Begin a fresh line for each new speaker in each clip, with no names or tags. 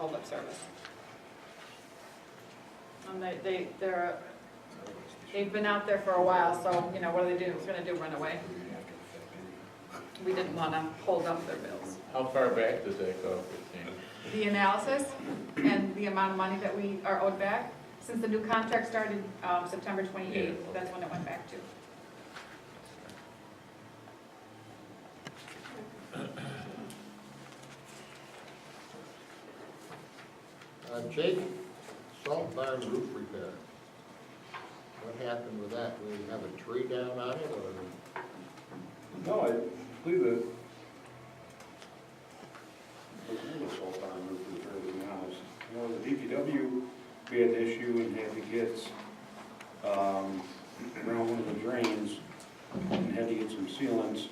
of service. And they, they, they're, they've been out there for a while, so, you know, what do they do? What's gonna do, run away? We didn't wanna hold up their bills.
How far back does that go, Christine?
The analysis and the amount of money that we are owed back, since the new contract started, um, September twenty-eighth,
Yeah.
that's when it went back to.
Uh, Jake, salt barn roof repair. What happened with that? We have a tree down on it or?
No, I believe it. You know, the DPW, we had an issue and had to get, um, around one of the drains and had to get some sealants.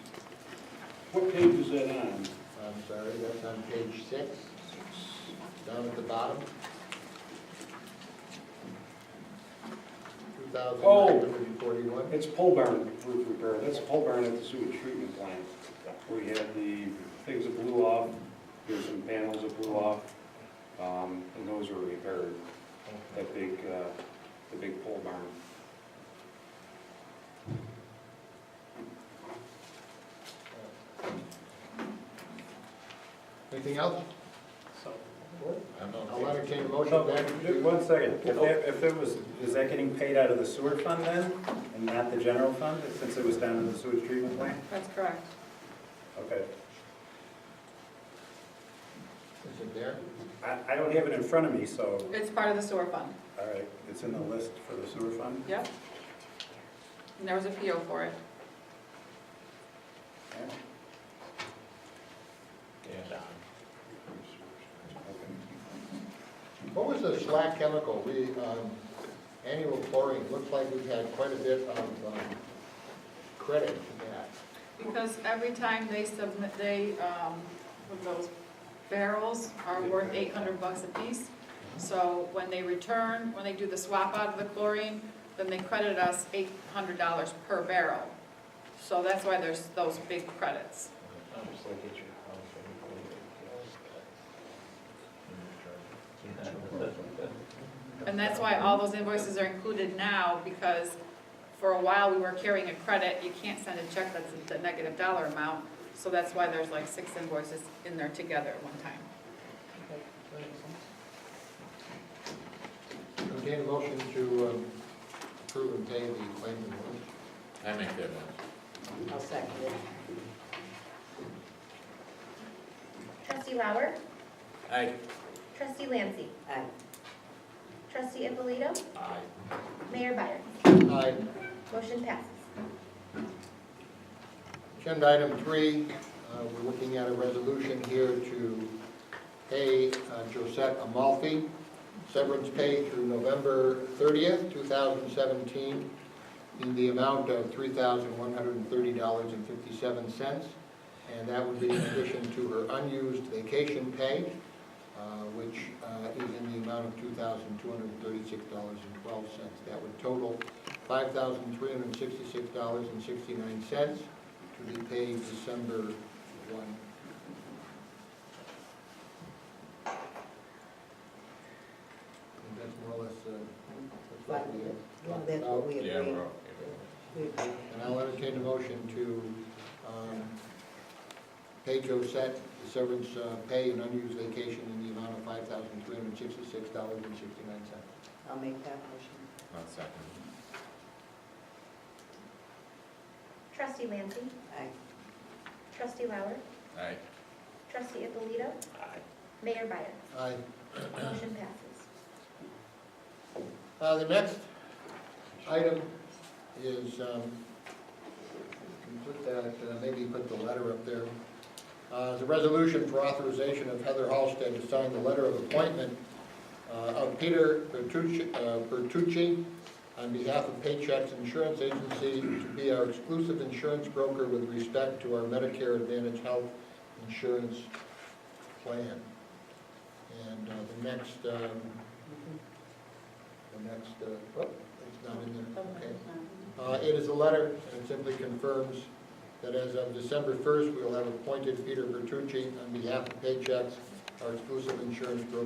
What page is that on?
I'm sorry, that's on page six, down at the bottom. Two thousand nine hundred and forty-one.
It's pole barn roof repair, that's pole barn at the sewage treatment plant, where we had the things that blew off, there's some panels that blew off, um, and those were repaired, that big, uh, the big pole barn.
Anything else?
I'm okay.
I'll entertain a motion then.
One second, if that, if that was, is that getting paid out of the sewer fund then, and not the general fund, since it was down in the sewage treatment plant?
That's correct.
Okay,
Is it there?
I, I don't have it in front of me, so,
It's part of the sewer fund,
all right, it's in the list for the sewer fund?
yep. And there was a PO for it.
Yeah.
Yeah.
What was the slack chemical? We, um, annual chlorine, looks like we've had quite a bit of, um, credit to that.
Because every time they submit, they, um, with those barrels are worth eight hundred bucks a piece. So when they return, when they do the swap out of the chlorine, then they credit us eight hundred dollars per barrel. So that's why there's those big credits. And that's why all those invoices are included now, because for a while we were carrying a credit, you can't send a check that's a negative dollar amount. So that's why there's like six invoices in there together at one time.
Entertain a motion to um, approve and pay the claim in full.
I make that motion.
I'll second it.
Trustee Lauer,
Aye.
trustee Lancy,
Aye.
trustee Ippolito,
Aye.
mayor Byers.
Aye.
Motion passes.
Agenda item three, uh, we're looking at a resolution here to pay uh, Josette Amalfi severance pay through November 30th, 2017, in the amount of $3,130.57. And that would be in addition to her unused vacation pay, uh, which uh, is in the amount of $2,236.12. That would total $5,366.69 to be paid December 1. And that's more or less, uh, that's what we
Well,
have
that's
talked about.
what we
Yeah,
agreed.
we're okay with
We agreed.
And I'll entertain a motion to um, pay Josette the severance uh, pay and unused vacation in the amount of $5,366.69.
I'll make that motion.
it. I'll second.
Trustee Lancy,
Aye.
trustee Lauer,
Aye.
trustee Ippolito, mayor Byers.
Aye.
Motion passes.
Uh, The next item is, um, you put that, uh, maybe put the letter up there. Uh, The resolution for authorization of Heather Halsted to sign the letter of appointment uh, of Peter Bertucci- uh, Bertucci on behalf of Paychex Insurance Agency to be our exclusive insurance broker with respect to our Medicare Advantage Health Insurance Plan. And uh, the next um, the next, uh, oh, it's not in there, okay. Uh, It is a letter, and it simply confirms that as of December 1st, we will have appointed Peter Bertucci on behalf of Paychex, our exclusive insurance broker.